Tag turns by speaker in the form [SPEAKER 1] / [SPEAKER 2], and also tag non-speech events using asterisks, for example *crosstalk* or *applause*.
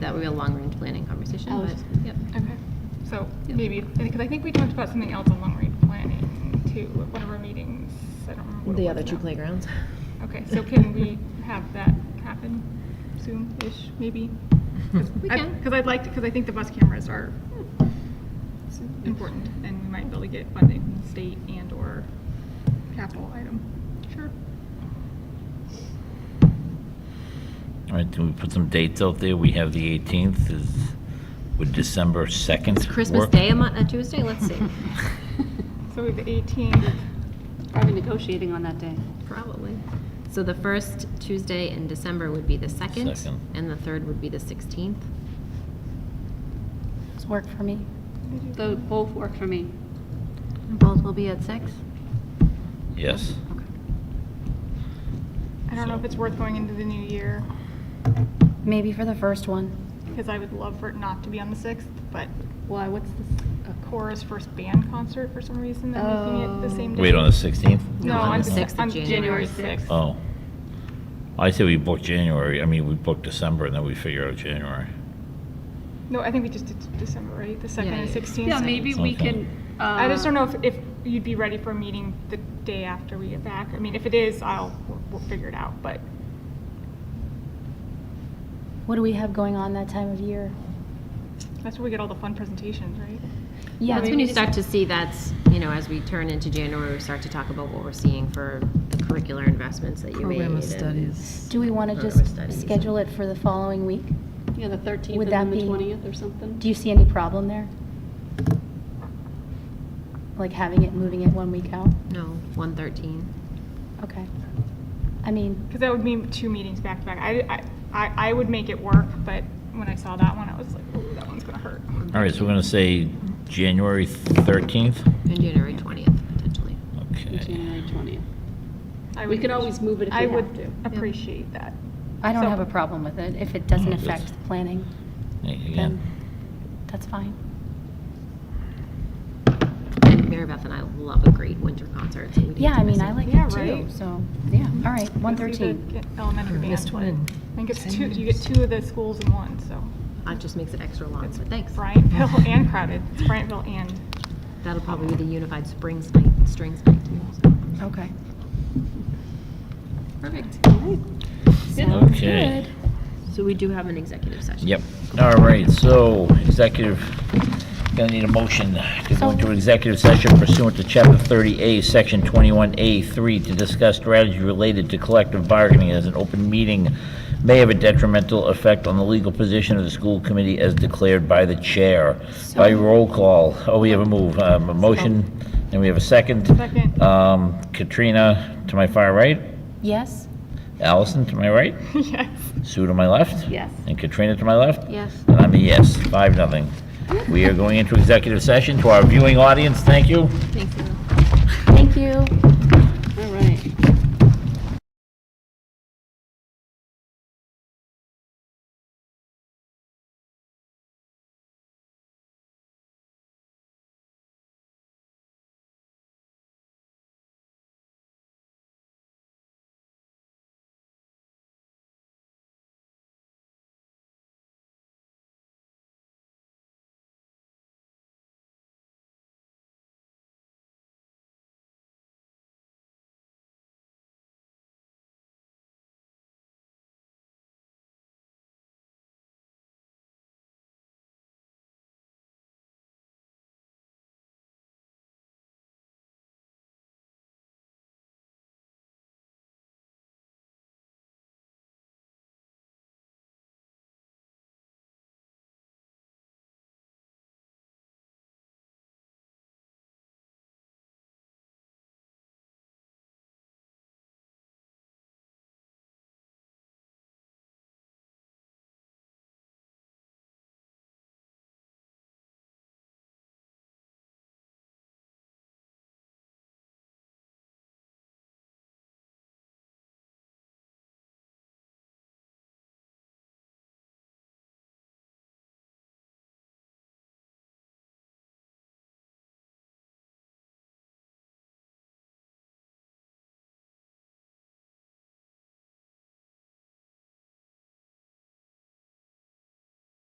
[SPEAKER 1] that would be a long-range planning conversation,
[SPEAKER 2] Oh,
[SPEAKER 1] but,
[SPEAKER 2] it's-
[SPEAKER 1] yep.
[SPEAKER 3] Okay, so
[SPEAKER 1] Yeah.
[SPEAKER 3] maybe, because I think we talked about something else on long-range planning too, at one of our meetings, I don't remember. what it
[SPEAKER 4] The
[SPEAKER 3] was
[SPEAKER 4] other two
[SPEAKER 3] now.
[SPEAKER 4] playgrounds.
[SPEAKER 3] Okay, so can we have that happen soon-ish, maybe?
[SPEAKER 1] We can.
[SPEAKER 3] Because I'd like to, because I think the bus cameras are important, and we might be able to get funding from the state and/or capital item. Sure.
[SPEAKER 5] All right, can we put some dates out there? We have the 18th, is, would December 2nd
[SPEAKER 1] It's Christmas
[SPEAKER 5] work?
[SPEAKER 1] Day, a mon- a Tuesday, let's see,
[SPEAKER 3] So we have the 18th,
[SPEAKER 2] Probably negotiating on that day.
[SPEAKER 1] *laughs* probably. So the first Tuesday in December would be the second,
[SPEAKER 5] Second.
[SPEAKER 1] and the third would be the 16th.
[SPEAKER 6] Does work for me?
[SPEAKER 2] Though both work for me.
[SPEAKER 6] Both will be at six?
[SPEAKER 5] Yes.
[SPEAKER 3] I don't know if
[SPEAKER 5] So-
[SPEAKER 3] it's worth going into the new year,
[SPEAKER 6] Maybe for the first one.
[SPEAKER 3] because I would love for it not to be on the 6th, but
[SPEAKER 2] Why, what's this?
[SPEAKER 3] a chorus first band concert for some reason that I'm looking at the same day.
[SPEAKER 5] Wait, on the 16th?
[SPEAKER 3] No,
[SPEAKER 1] No, on
[SPEAKER 3] on
[SPEAKER 1] the 6th of
[SPEAKER 3] on
[SPEAKER 1] January.
[SPEAKER 3] January 6th.
[SPEAKER 5] Oh. I say we book January, I mean, we book December, and then we figure out January.
[SPEAKER 3] No, I think we just did December, right? The 2nd and
[SPEAKER 1] yeah.
[SPEAKER 3] 16th.
[SPEAKER 2] Yeah, maybe we can. uh,
[SPEAKER 3] I just don't know if, if you'd be ready for a meeting the day after we get back. I mean, if it is, I'll, we'll- we'll figure it out, but
[SPEAKER 6] What do we have going on that time of year?
[SPEAKER 3] that's where we get all the fun presentations, right?
[SPEAKER 6] Yeah,
[SPEAKER 1] That's when you start to see that's, you know, as we turn into January, we start to talk about what we're seeing for the curricular investments that you made.
[SPEAKER 4] Program of
[SPEAKER 1] and-
[SPEAKER 4] studies.
[SPEAKER 6] Do we want to
[SPEAKER 1] Or
[SPEAKER 6] just
[SPEAKER 1] studies.
[SPEAKER 6] schedule it for the following week?
[SPEAKER 2] Yeah, the 13th
[SPEAKER 6] Would
[SPEAKER 2] and then
[SPEAKER 6] that
[SPEAKER 2] the
[SPEAKER 6] be-
[SPEAKER 2] 20th or something.
[SPEAKER 6] Do you see any problem there? Like having it, moving it one week out?
[SPEAKER 1] No, 113.
[SPEAKER 6] Okay. I mean,
[SPEAKER 3] Because that would mean two meetings back to back. I, I- I, I would make it work, but when I saw that one, I was like, ooh, that one's gonna hurt.
[SPEAKER 5] All right, so we're going to say January 13th?
[SPEAKER 1] And January 20th, potentially.
[SPEAKER 5] Okay.
[SPEAKER 2] January 20th.
[SPEAKER 3] I
[SPEAKER 2] We
[SPEAKER 3] would-
[SPEAKER 2] could always move it if we
[SPEAKER 3] I
[SPEAKER 2] have
[SPEAKER 3] would
[SPEAKER 2] to.
[SPEAKER 3] appreciate that.
[SPEAKER 6] I don't
[SPEAKER 3] So-
[SPEAKER 6] have a problem with it. If it doesn't
[SPEAKER 5] Oh, that's-
[SPEAKER 6] affect the planning,
[SPEAKER 5] Yeah,
[SPEAKER 6] then
[SPEAKER 5] Again,
[SPEAKER 6] that's fine.
[SPEAKER 1] And Mary Beth and I love a great winter concert, so we need
[SPEAKER 6] Yeah,
[SPEAKER 1] to
[SPEAKER 6] I mean,
[SPEAKER 1] miss
[SPEAKER 6] I
[SPEAKER 1] it.
[SPEAKER 6] like
[SPEAKER 3] Yeah,
[SPEAKER 6] it too,
[SPEAKER 3] right.
[SPEAKER 6] so, yeah, all right,
[SPEAKER 3] Let's do the
[SPEAKER 6] 113.
[SPEAKER 3] Elementary band.
[SPEAKER 4] Missed one.
[SPEAKER 3] I think it's two, you get two of the schools in one, so.
[SPEAKER 1] It just makes it extra long,
[SPEAKER 3] It's
[SPEAKER 1] but thanks.
[SPEAKER 3] *laughs* Bryantville and Crowded. It's Bryantville and.
[SPEAKER 1] That'll probably be the unified springs night, strings night too. so.
[SPEAKER 6] Okay.
[SPEAKER 1] Perfect.
[SPEAKER 6] Sounds
[SPEAKER 5] Okay.
[SPEAKER 6] good.
[SPEAKER 1] So we do have an executive session.
[SPEAKER 5] yep. All right, so executive, going to need a motion to go into executive session pursuant to Chapter 30A, Section 21A3, to discuss strategy related to collective bargaining as an open meeting may have a detrimental effect on the legal position of the school committee as declared by the chair. By roll call, oh, we have a move, um, a motion, and we have a second.
[SPEAKER 3] Second.
[SPEAKER 5] Um, Katrina, to my far right,
[SPEAKER 6] Yes?
[SPEAKER 5] Allison, to my right,
[SPEAKER 3] *laughs* Yes.
[SPEAKER 5] Sue to my left.
[SPEAKER 2] Yes.
[SPEAKER 5] And Katrina to my left?
[SPEAKER 1] Yes.
[SPEAKER 5] And I'm a yes, five, nothing. We are going into executive session. To our viewing audience, thank you.
[SPEAKER 1] Thank you.
[SPEAKER 6] Thank you.